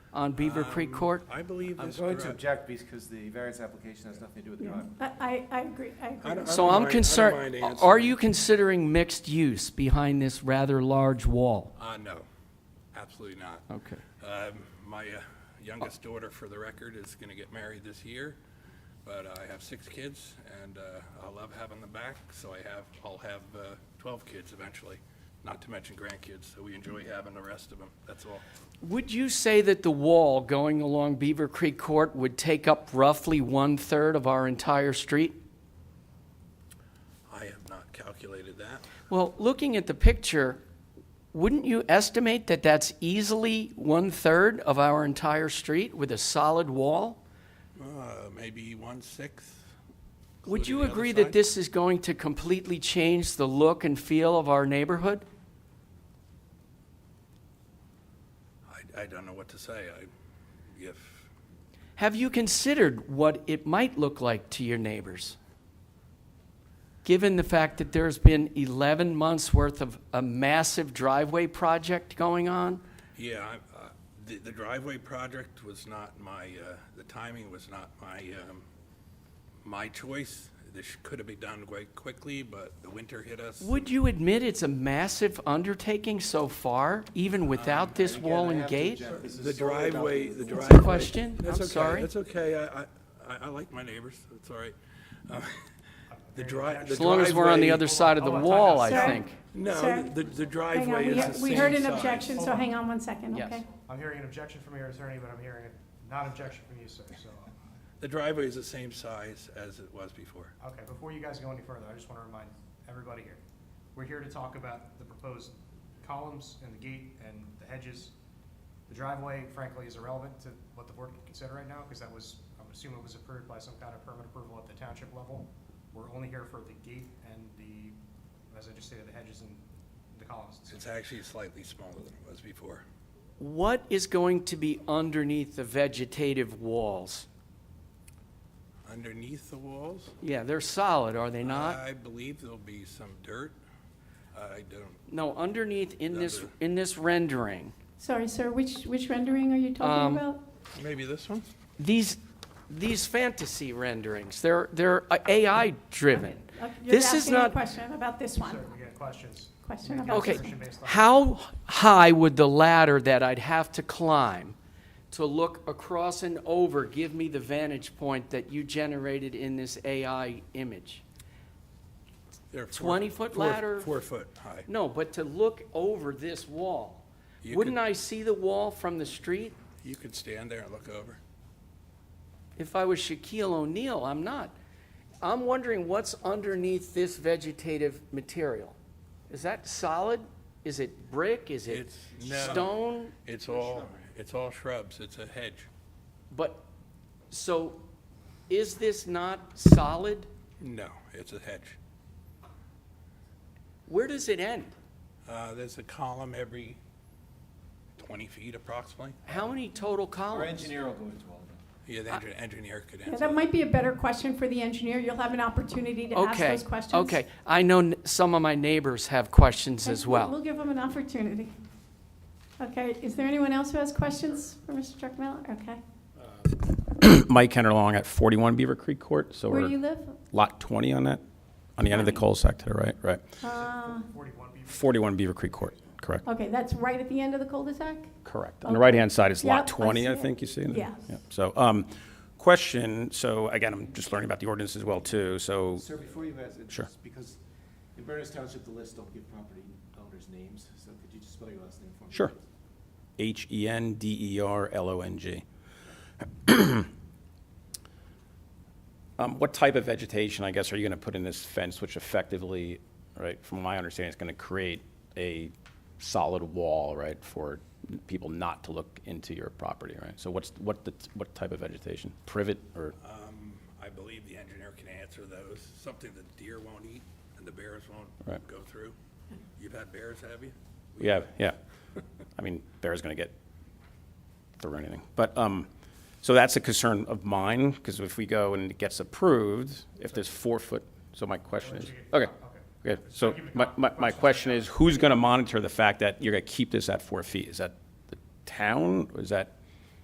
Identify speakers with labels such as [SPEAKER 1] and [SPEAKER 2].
[SPEAKER 1] on Beaver
[SPEAKER 2] Um,
[SPEAKER 1] Creek Court?
[SPEAKER 2] I believe
[SPEAKER 3] I'm
[SPEAKER 2] is
[SPEAKER 3] going to
[SPEAKER 2] correct.
[SPEAKER 3] object because the variance application has nothing to do with the
[SPEAKER 4] Yeah,
[SPEAKER 3] driveway.
[SPEAKER 4] I, I I agree, I
[SPEAKER 2] I
[SPEAKER 4] agree.
[SPEAKER 2] don't- I
[SPEAKER 1] So I'm
[SPEAKER 2] don't mind- I don't mind
[SPEAKER 1] concerned,
[SPEAKER 2] answering.
[SPEAKER 1] are you considering mixed use behind this rather large wall?
[SPEAKER 2] Uh, no, absolutely not.
[SPEAKER 1] Okay.
[SPEAKER 2] Um, My uh, youngest daughter, for the record, is going to get married this year, but uh, I have six kids, and uh, I love having them back, so I have, I'll have uh, 12 kids eventually, not to mention grandkids, so we enjoy having the rest of them, that's all.
[SPEAKER 1] Would you say that the wall going along Beaver Creek Court would take up roughly one-third of our entire street?
[SPEAKER 2] I have not calculated that.
[SPEAKER 1] Well, looking at the picture, wouldn't you estimate that that's easily one-third of our entire street with a solid wall?
[SPEAKER 2] Uh, Maybe one-sixth?
[SPEAKER 1] Would
[SPEAKER 2] including
[SPEAKER 1] you
[SPEAKER 2] the other
[SPEAKER 1] agree
[SPEAKER 2] side?
[SPEAKER 1] that this is going to completely change the look and feel of our neighborhood?
[SPEAKER 2] I, I don't know what to say. I, if,
[SPEAKER 1] Have you considered what it might look like to your neighbors? Given the fact that there's been 11 months' worth of a massive driveway project going on?
[SPEAKER 2] yeah, I- uh, the the driveway project was not my, uh, the timing was not my, um, my choice. This could have been done quite quickly, but the winter hit us.
[SPEAKER 1] Would you admit it's a massive undertaking so far, even without this
[SPEAKER 3] Um, Again,
[SPEAKER 1] wall
[SPEAKER 3] I
[SPEAKER 1] and
[SPEAKER 3] have to
[SPEAKER 1] gate?
[SPEAKER 3] object. This is
[SPEAKER 2] The
[SPEAKER 3] solely about
[SPEAKER 2] driveway, the driveway.
[SPEAKER 1] What's the question?
[SPEAKER 2] That's
[SPEAKER 1] I'm
[SPEAKER 2] okay,
[SPEAKER 1] sorry.
[SPEAKER 2] That's okay. I, I- I, I like my neighbors. It's all right. Uh, The dri- the driveway.
[SPEAKER 1] As long as we're on the other side of the
[SPEAKER 3] Oh,
[SPEAKER 1] wall, I
[SPEAKER 4] Sir?
[SPEAKER 1] think.
[SPEAKER 2] No,
[SPEAKER 4] Sir?
[SPEAKER 2] the, the
[SPEAKER 4] Hang on,
[SPEAKER 2] driveway
[SPEAKER 4] we
[SPEAKER 2] is the
[SPEAKER 4] he-
[SPEAKER 2] same
[SPEAKER 4] we heard an
[SPEAKER 2] size.
[SPEAKER 4] objection, so hang on one second,
[SPEAKER 1] Yes.
[SPEAKER 4] okay?
[SPEAKER 5] I'm hearing an objection from your attorney, but I'm hearing a non-objection from you, sir, so,
[SPEAKER 2] The driveway is the same size as it was before.
[SPEAKER 5] uh, okay, before you guys go any further, I just want to remind everybody here, we're here to talk about the proposed columns and the gate and the hedges. The driveway frankly is irrelevant to what the board can consider right now, because that was, I'm assuming it was approved by some kind of permit approval at the township level. We're only here for the gate and the, as I just stated, the hedges and the columns.
[SPEAKER 2] It's actually slightly smaller than it was before.
[SPEAKER 1] What is going to be underneath the vegetative walls?
[SPEAKER 2] Underneath the walls?
[SPEAKER 1] Yeah, they're solid, are they
[SPEAKER 3] Uh,
[SPEAKER 1] not?
[SPEAKER 2] I believe there'll be some dirt. I don't,
[SPEAKER 1] No, underneath in this,
[SPEAKER 2] Another.
[SPEAKER 1] in this rendering,
[SPEAKER 4] Sorry, sir, which, which rendering are you
[SPEAKER 1] Um,
[SPEAKER 4] talking about?
[SPEAKER 2] maybe this one?
[SPEAKER 1] these, these fantasy renderings, they're, they're AI-driven.
[SPEAKER 4] Uh, You're
[SPEAKER 1] This is
[SPEAKER 4] asking a
[SPEAKER 1] not,
[SPEAKER 4] question about this one.
[SPEAKER 5] Sir, we got questions.
[SPEAKER 4] Question
[SPEAKER 5] Make
[SPEAKER 4] about
[SPEAKER 5] your
[SPEAKER 1] okay,
[SPEAKER 5] assertion based on-
[SPEAKER 1] how high would the ladder that I'd have to climb to look across and over give me the vantage point that you generated in this AI image?
[SPEAKER 2] They're four-
[SPEAKER 1] 20-foot
[SPEAKER 2] four-
[SPEAKER 1] ladder?
[SPEAKER 2] Four foot high.
[SPEAKER 1] No, but to look over this wall.
[SPEAKER 2] You
[SPEAKER 1] Wouldn't
[SPEAKER 2] could-
[SPEAKER 1] I see the wall from the street?
[SPEAKER 2] You could stand there and look over.
[SPEAKER 1] If I was Shaquille O'Neal, I'm not. I'm wondering what's underneath this vegetative material. Is that solid? Is it brick? Is it
[SPEAKER 2] It's- no.
[SPEAKER 1] stone?
[SPEAKER 2] It's all, it's all shrubs. It's a hedge.
[SPEAKER 1] But, so, is this not solid?
[SPEAKER 2] No, it's a hedge.
[SPEAKER 1] Where does it end?
[SPEAKER 2] Uh, there's a column every twenty feet approximately.
[SPEAKER 1] How many total
[SPEAKER 3] Our
[SPEAKER 1] columns?
[SPEAKER 3] engineer will go into all of that.
[SPEAKER 2] Yeah, the engi- engineer could
[SPEAKER 4] Yeah,
[SPEAKER 2] answer.
[SPEAKER 4] that might be a better question for the engineer. You'll have an opportunity to ask
[SPEAKER 1] Okay,
[SPEAKER 4] those questions.
[SPEAKER 1] okay. I know n- some of my neighbors have questions
[SPEAKER 4] Okay,
[SPEAKER 1] as
[SPEAKER 4] we'll-
[SPEAKER 1] well.
[SPEAKER 4] We'll give them an opportunity. Okay, is there anyone else who has questions for Mr. Druckenmiller? Okay.
[SPEAKER 6] Mike Kenderlong at 41 Beaver Creek Court, so
[SPEAKER 4] Where do you
[SPEAKER 6] we're
[SPEAKER 4] live?
[SPEAKER 6] lot 20 on that, on the end of the cul de to the right, right.
[SPEAKER 4] Uh,
[SPEAKER 5] 41 people.
[SPEAKER 6] 41 Beaver Creek Court, correct,
[SPEAKER 4] Okay, that's right at the end of the cul-de-sac?
[SPEAKER 6] correct. On the
[SPEAKER 4] Okay.
[SPEAKER 6] right-hand side is
[SPEAKER 4] Yep, I
[SPEAKER 6] lot
[SPEAKER 4] see
[SPEAKER 6] 20, I
[SPEAKER 4] it.
[SPEAKER 6] think you see. it?
[SPEAKER 4] Yeah.
[SPEAKER 6] Yep. So, um, question, so again, I'm just learning about the ordinance as well, too, so,
[SPEAKER 3] Sir, before you ask, it's
[SPEAKER 6] Sure.
[SPEAKER 3] because in Berners Township, the list don't give property owners' names, so could you just spell your last name for me?
[SPEAKER 6] sure.
[SPEAKER 3] please?
[SPEAKER 6] E H-E-N-D-E-R-L-O-N-G. Um, What type of vegetation, I guess, are you going to put in this fence, which effectively, right, from my understanding, is going to create a solid wall, right, for people not to look into your property, right? So what's, what, the- what type of vegetation? Privet or,
[SPEAKER 2] Um, I believe the engineer can answer those, something that deer won't eat and the bears won't
[SPEAKER 6] Right.
[SPEAKER 2] go through. You've had bears, have you?
[SPEAKER 6] yeah, yeah. I mean, bear's going to get through anything. But, um, so that's a concern of mine, because if we go and it gets approved, if there's four foot, so my question is, okay. Okay, so my, my, my question is, who's gonna monitor the fact that you're gonna keep this at four feet? Is that the town, or is that